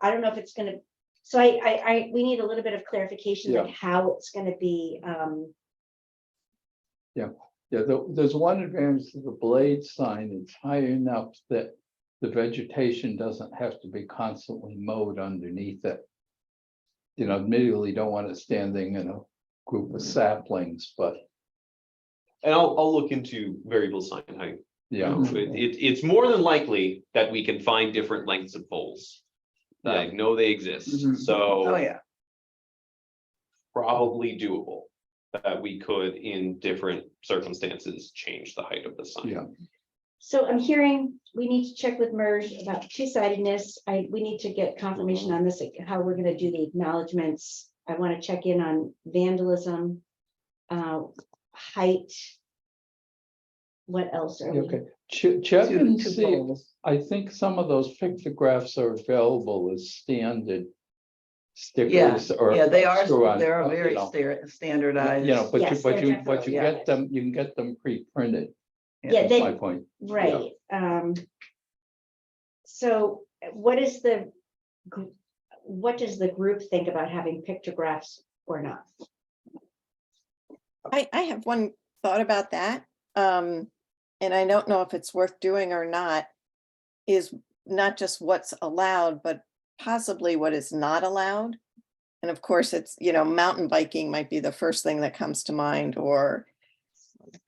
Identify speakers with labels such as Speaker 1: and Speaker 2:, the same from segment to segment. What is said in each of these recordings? Speaker 1: I don't know if it's gonna, so I, I, I, we need a little bit of clarification on how it's gonna be, um,
Speaker 2: Yeah, the- there's one advantage to the blade sign. It's high enough that the vegetation doesn't have to be constantly mowed underneath it. You know, admittedly, you don't want it standing in a group of saplings, but
Speaker 3: And I'll, I'll look into variable sign height. Um,
Speaker 2: yeah.
Speaker 3: It, it- it's more than likely that we can find different lengths of poles. I know they
Speaker 4: Mhm.
Speaker 3: exist,
Speaker 4: Oh,
Speaker 3: so
Speaker 4: yeah.
Speaker 3: probably doable. That we could in different circumstances, change the height of the sign.
Speaker 2: Yeah.
Speaker 1: so I'm hearing, we need to check with MERS about two-sidedness. I, we need to get confirmation on this, like, how we're gonna do the acknowledgements. I wanna check in on vandalism, uh, height. What else are we?
Speaker 2: Okay, che- check
Speaker 4: Two-
Speaker 2: and
Speaker 4: two
Speaker 2: see.
Speaker 4: poles.
Speaker 2: I think some of those pictographs are available as standard stickers or.
Speaker 4: Yeah, they are,
Speaker 2: screw on,
Speaker 4: they
Speaker 2: uh,
Speaker 4: are
Speaker 2: you
Speaker 4: very
Speaker 2: know,
Speaker 4: sta-
Speaker 2: You
Speaker 4: standardized.
Speaker 2: know, but you,
Speaker 1: Yes,
Speaker 2: but
Speaker 1: they're
Speaker 2: you, but you
Speaker 4: definitely
Speaker 2: get them, you can get them pre-printed.
Speaker 1: Yeah,
Speaker 2: That's
Speaker 1: they-
Speaker 2: my point.
Speaker 1: Right, um. So what is the, gr- what does the group think about having pictographs or not?
Speaker 5: I, I have one thought about that. Um, and I don't know if it's worth doing or not. Is not just what's allowed, but possibly what is not allowed. And of course, it's, you know, mountain biking might be the first thing that comes to mind, or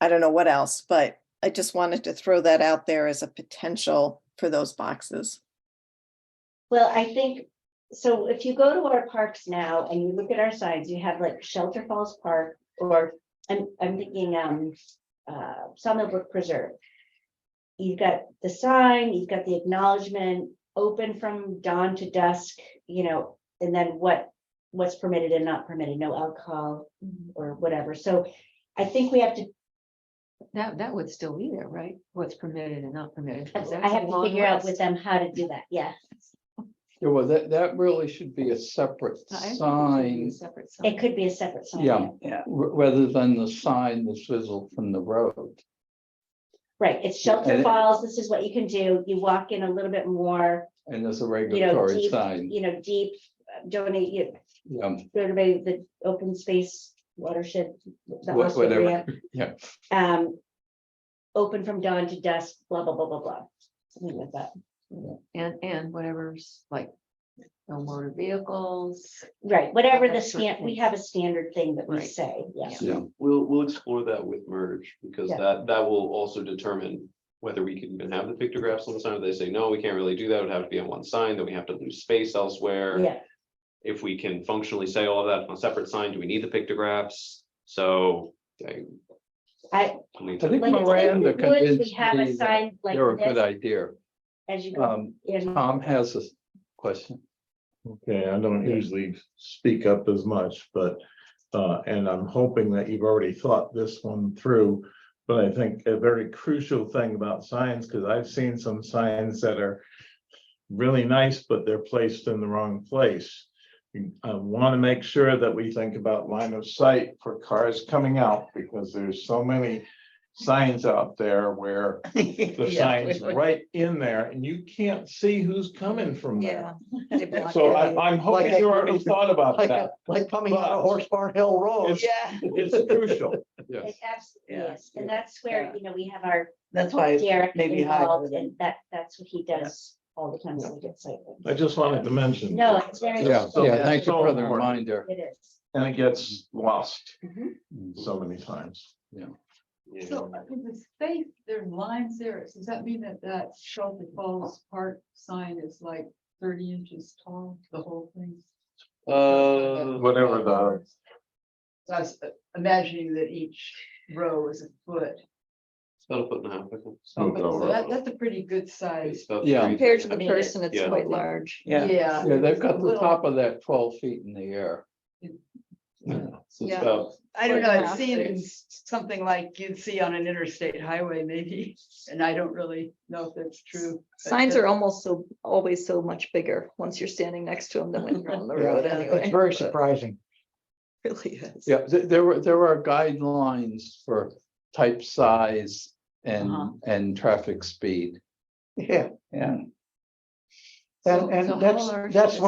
Speaker 5: I don't know what else, but I just wanted to throw that out there as a potential for those boxes.
Speaker 1: Well, I think, so if you go to our parks now and you look at our signs, you have like Shelter Falls Park or I'm, I'm thinking, um, uh, Summit Brook Preserve. You've got the sign, you've got the acknowledgement, open from dawn to dusk, you know, and then what, what's permitted and not permitted, no alcohol or whatever. So I think we have to,
Speaker 6: That, that would still be there, right? What's permitted and not permitted. 'cause
Speaker 1: I
Speaker 6: that's a
Speaker 1: have to
Speaker 6: long
Speaker 1: figure out with
Speaker 6: list.
Speaker 1: them how to do that. Yeah,
Speaker 2: Yeah, well, that, that really should be a separate
Speaker 6: I think it should be a
Speaker 2: sign,
Speaker 6: separate sign.
Speaker 1: it could be a separate sign.
Speaker 2: Yeah.
Speaker 4: Yeah,
Speaker 2: r- rather than the sign that's visible from the road.
Speaker 1: Right, it's
Speaker 2: Yeah, and
Speaker 1: shelter
Speaker 2: it-
Speaker 1: falls, this is what you can do, you walk in a little bit more,
Speaker 2: And there's a
Speaker 1: you know,
Speaker 2: regulatory
Speaker 1: deep,
Speaker 2: sign.
Speaker 1: you know, deep, uh, donate, you,
Speaker 2: Yeah,
Speaker 1: go to the, the open space watershed. the
Speaker 2: Wha-
Speaker 1: Austin
Speaker 2: whatever,
Speaker 1: area,
Speaker 2: yeah.
Speaker 1: Um, open from dawn to dusk, blah, blah, blah, blah, blah, something like that,
Speaker 6: And, and whatever's like, no motor vehicles.
Speaker 1: right, whatever the
Speaker 6: That sort of
Speaker 1: scan, we
Speaker 6: thing.
Speaker 1: have a standard thing that we
Speaker 6: Right.
Speaker 1: say, yeah.
Speaker 6: Yeah.
Speaker 2: yeah.
Speaker 3: We'll, we'll explore that with merge, because
Speaker 1: Yeah.
Speaker 3: that, that will also determine whether we can even have the pictographs on the sign, or they say, no, we can't really do that, it would have to be on one sign, then we have to lose space elsewhere.
Speaker 1: Yeah,
Speaker 3: If we can functionally say all of that on a separate sign, do we need the pictographs? So. I-
Speaker 1: I-
Speaker 3: mean,
Speaker 2: I think
Speaker 1: like it's in
Speaker 2: Miranda
Speaker 1: the woods, we
Speaker 2: convinced
Speaker 1: have
Speaker 2: me
Speaker 1: a
Speaker 2: that
Speaker 1: sign like
Speaker 2: They're a good
Speaker 1: this,
Speaker 2: idea.
Speaker 1: as you go
Speaker 2: Um,
Speaker 1: in,
Speaker 2: Tom has a question.
Speaker 7: Okay, I don't
Speaker 2: Yeah.
Speaker 7: usually speak up as much, but, uh, and I'm hoping that you've already thought this one through. But I think a very crucial thing about signs, because I've seen some signs that are really nice, but they're placed in the wrong place. I want to make sure that we think about line of sight for cars coming out, because there's so many signs out there where the
Speaker 4: Yeah,
Speaker 7: sign's
Speaker 4: we- we-
Speaker 7: right in there, and you can't see who's coming from there.
Speaker 4: Yeah. they block
Speaker 7: So
Speaker 4: your
Speaker 7: I,
Speaker 4: view.
Speaker 7: I'm hoping
Speaker 4: Like-
Speaker 7: you already thought about
Speaker 4: like-
Speaker 7: that.
Speaker 4: like
Speaker 7: coming out of Horse
Speaker 4: Barn Hill
Speaker 7: Road.
Speaker 4: Yeah,
Speaker 7: It's crucial.
Speaker 2: Yes.
Speaker 1: it absolutely
Speaker 4: Yeah.
Speaker 1: is, and that's where,
Speaker 4: Yeah.
Speaker 1: you know, we have our
Speaker 4: that's why it's
Speaker 1: Derek
Speaker 4: maybe hide
Speaker 1: involved,
Speaker 4: within.
Speaker 1: and that, that's what he does all the time, so we get site.
Speaker 7: I just wanted to mention.
Speaker 1: No, it's very.
Speaker 2: Yeah,
Speaker 7: So
Speaker 2: yeah,
Speaker 7: that's
Speaker 2: thank you
Speaker 7: so
Speaker 2: for the
Speaker 7: important.
Speaker 2: reminder.
Speaker 1: It is.
Speaker 7: And it gets lost
Speaker 1: Mhm.
Speaker 7: so many times.
Speaker 3: yeah.
Speaker 8: So uh, in the space, there are lines there. Does that mean that that Shelter Falls Park sign is like thirty inches tall, the whole thing?
Speaker 3: Uh,
Speaker 7: Whatever the,
Speaker 8: So I was uh, imagining that each row is a foot.
Speaker 3: it's about a foot and a half. I think.
Speaker 8: So
Speaker 7: Moved over.
Speaker 8: that, that's a pretty good
Speaker 3: It's
Speaker 8: size.
Speaker 3: about
Speaker 2: Yeah.
Speaker 3: three-
Speaker 9: Compared to the
Speaker 3: Yeah.
Speaker 9: person, it's
Speaker 3: Yeah.
Speaker 9: quite large.
Speaker 4: Yeah.
Speaker 2: Yeah, they've
Speaker 8: it's
Speaker 2: got
Speaker 8: a
Speaker 2: the
Speaker 8: little-
Speaker 2: top of that twelve feet in the air.
Speaker 3: So it's
Speaker 9: Yeah.
Speaker 3: about
Speaker 8: I don't know,
Speaker 9: like
Speaker 8: it
Speaker 9: half
Speaker 8: seems something like you'd see on an interstate highway maybe, and I don't really know if that's true. but
Speaker 9: Signs
Speaker 8: that-
Speaker 9: are almost so, always so much bigger once you're standing next to them than when you're on the
Speaker 2: Yeah.
Speaker 9: road anyway. but
Speaker 4: surprising.
Speaker 9: it Really is.
Speaker 2: Yeah, th- there were, there are guidelines for type size
Speaker 8: Uh-huh.
Speaker 2: and, and traffic speed.
Speaker 4: Yeah.
Speaker 2: Yeah.
Speaker 8: So- so how large is it?